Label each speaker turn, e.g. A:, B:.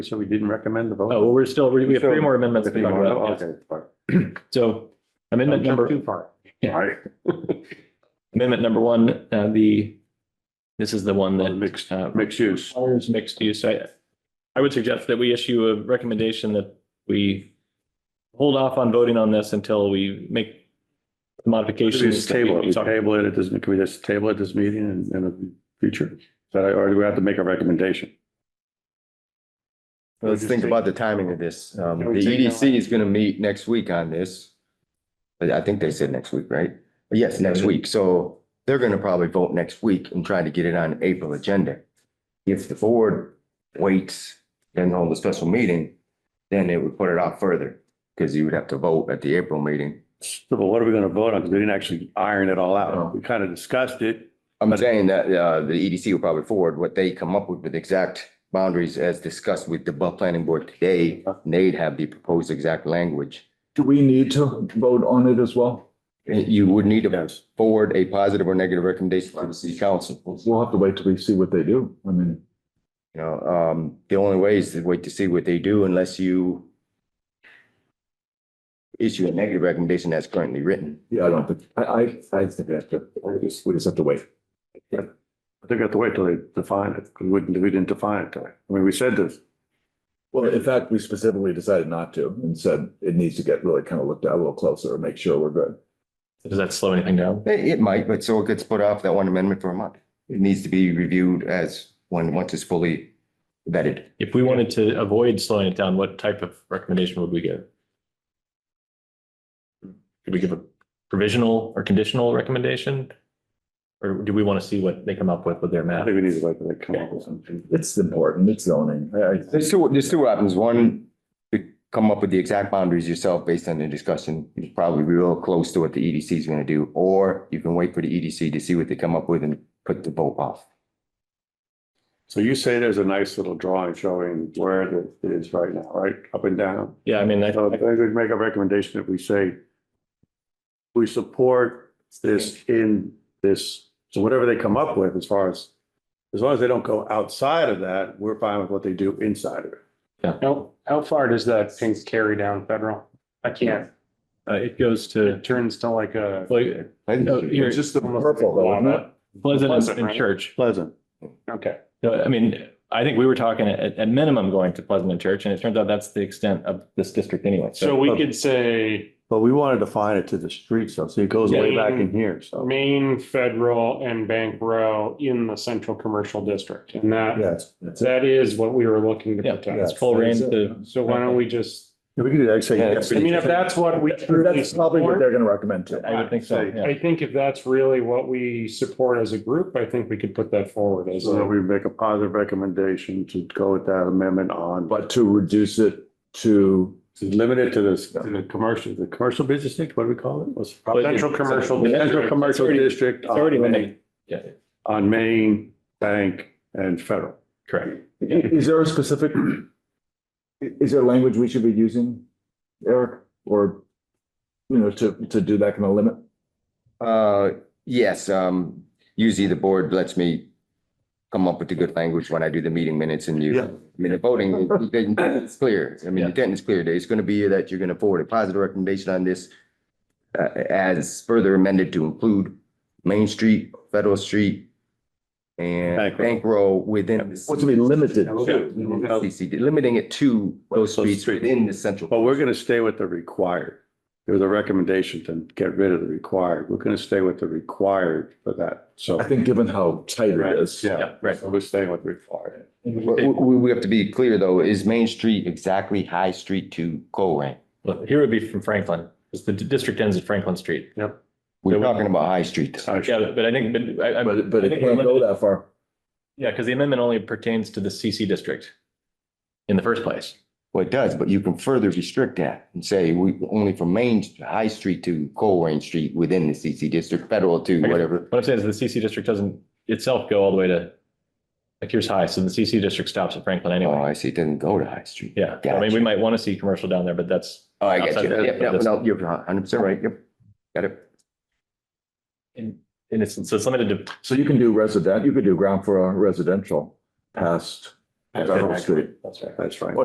A: So we didn't recommend the vote?
B: Oh, well, we're still, we we have three more amendments to
A: Three
B: talk
A: more, Oh,
B: about. yes.
A: okay, fine.
B: So amendment
A: Don't jump
B: number,
A: Too far.
B: Yeah.
A: All right.
B: amendment number one, uh, the, this is the one
A: Well,
B: that.
A: the mixed-
B: uh,
A: Mixed use.
B: requires mixed use. I, I would suggest that we issue a recommendation that we hold off on voting on this until we make the modifications.
A: Just
B: that we-
A: table it,
B: we
A: we
B: talked-
A: table it, it doesn't, can we just table it this meeting in, in the future? But I, or do we have to make a recommendation?
C: Let's think about the timing of this. Um, the EDC is gonna meet next week on this. I I think they said next week, right? Yes, next week. So they're gonna probably vote next week and try to get it on April agenda. If the board waits and hold a special meeting, then it would put it off further. Cause you would have to vote at the April meeting.
A: So but what are we gonna vote on? Because we didn't actually iron it all
C: No.
A: out. We kind of discussed it.
C: I'm saying that, uh, the EDC will probably forward what they come up with with exact boundaries as discussed with the bu- planning board today. And They'd have the proposed exact language.
D: Do we need to vote on it as well?
C: You would need to
A: Yes.
C: forward a positive or negative recommendation to the city council. You
D: We'll have to wait till we see what they do. I mean,
C: know, um, the only way is to wait to see what they do unless you issue a negative recommendation that's currently written.
D: yeah, I don't think, I, I, I think that's good. I just- We just have to wait.
A: I think we have to wait till they define it. 'cause We didn't, we didn't define it. I mean, we said this.
D: Well, in fact, we specifically decided not to and said it needs to get really kind of looked at a little closer and make sure we're good.
B: Does that slow anything down?
C: It, it might, but so it gets put off that one amendment for a month. It needs to be reviewed as when, once it's fully vetted.
B: If we wanted to avoid slowing it down, what type of recommendation would we give? Could we give a provisional or conditional recommendation? Or do we want to see what they come up with with their
A: I
B: map?
A: think we need to wait till they come up with something.
D: It's important. It's zoning. I, I,
C: There's two, there's two options. One, you come up with the exact boundaries yourself based on the discussion. You're probably real close to what the EDC is gonna do, or you can wait for the EDC to see what they come up with and put the vote off.
A: So you say there's a nice little drawing showing where it is right now, right? Up and down.
B: Yeah, I mean, I,
A: So Uh, I think we'd make a recommendation that we say we support this in this, so whatever they come up with as far as, as long as they don't go outside of that, we're fine with what they do inside of it.
E: How, how far does that thing carry down federal? I can't.
B: uh, it goes to,
E: It turns to like a.
B: like,
C: I think
E: Oh,
B: no,
C: you should-
B: here,
E: just the
D: purple though, isn't it?
B: Pleasant
E: Pleasant,
B: and
E: right?
B: Church.
A: Pleasant.
E: Okay.
B: So, I mean, I think we were talking at, at minimum going to Pleasant and Church, and it turns out that's the extent of this district anyway.
E: So
B: So
E: we could say
A: But we want to define it to the street, so, so it goes way back in here, so.
E: main federal and bank row in the central commercial district. And that,
D: Yes. that's it.
E: that is what we were looking to
B: Yeah,
E: protect.
B: it's full range to,
E: So why don't we just,
A: Yeah, We could do that, say.
C: Yeah,
E: I mean, if that's what we truly
D: That's probably what
E: support,
D: they're gonna recommend too.
B: I would think so, yeah.
E: I think if that's really what we support as a group, I think we could put that forward as.
A: So
E: a-
A: we make a positive recommendation to go with that amendment on, but
D: But to reduce it to,
A: to limit it to this, to the commercial, the commercial business district, what do we call it? What's- Central commercial, central commercial district
B: It's already
A: on
B: been,
A: Main,
B: made. yeah,
A: on Main, Bank and Federal.
B: correct.
D: i- is there a specific, i- is there language we should be using, Eric? Or, you know, to, to do that kind of limit?
C: Uh, yes, um, usually the board lets me come up with the good language when I do the meeting minutes and you,
A: Yeah.
C: I mean, the voting, it- it- it's clear. I mean, the intent is clear. It's gonna be that you're gonna forward a positive recommendation on this uh, as further amended to include Main Street, Federal Street, and
A: Bank Row.
C: Bank Row within. the
D: What's to be limited
A: Yeah, we'll
D: to?
A: do- we'll go-
C: CCD, Limiting it to those
A: Those
C: streets
A: streets.
C: within the central.
A: But we're gonna stay with the required. There was a recommendation to get rid of the required. We're gonna stay with the required for that, so.
D: I think given how tight it is.
A: Yeah,
B: right.
A: So We're staying with required.
C: We, we- we have to be clear though, is Main Street exactly High Street to Colerain?
B: Well, here would be from Franklin, because the d- district ends at Franklin Street.
C: We're talking about High Street. though.
A: Sorry.
B: Yeah, but- but I think, but I, I,
D: But, but
B: I
D: it
B: think we're
D: can't go
B: limited-
D: that far.
B: yeah, because the amendment only pertains to the CC district in the first place.
C: Well, it does, but you can further restrict that and say we only from Main, High Street to Colerain Street within the CC district, federal to whatever.
B: What I'm saying is the CC district doesn't itself go all the way to, like here's high, so the CC district stops at Franklin
C: Oh,
B: anyway.
C: I see, it doesn't go to High Street.
B: Yeah, I mean,
C: Gotcha.
B: we might want to see commercial down there, but that's,
C: Oh, I got you.
B: Outside of-
C: Yep, no, no, you're hundred percent right. Yep. Got it.
B: and, and it's, so it's limited to
D: So you can do resident, you could do ground floor residential past
F: That's our whole street.
B: That's right.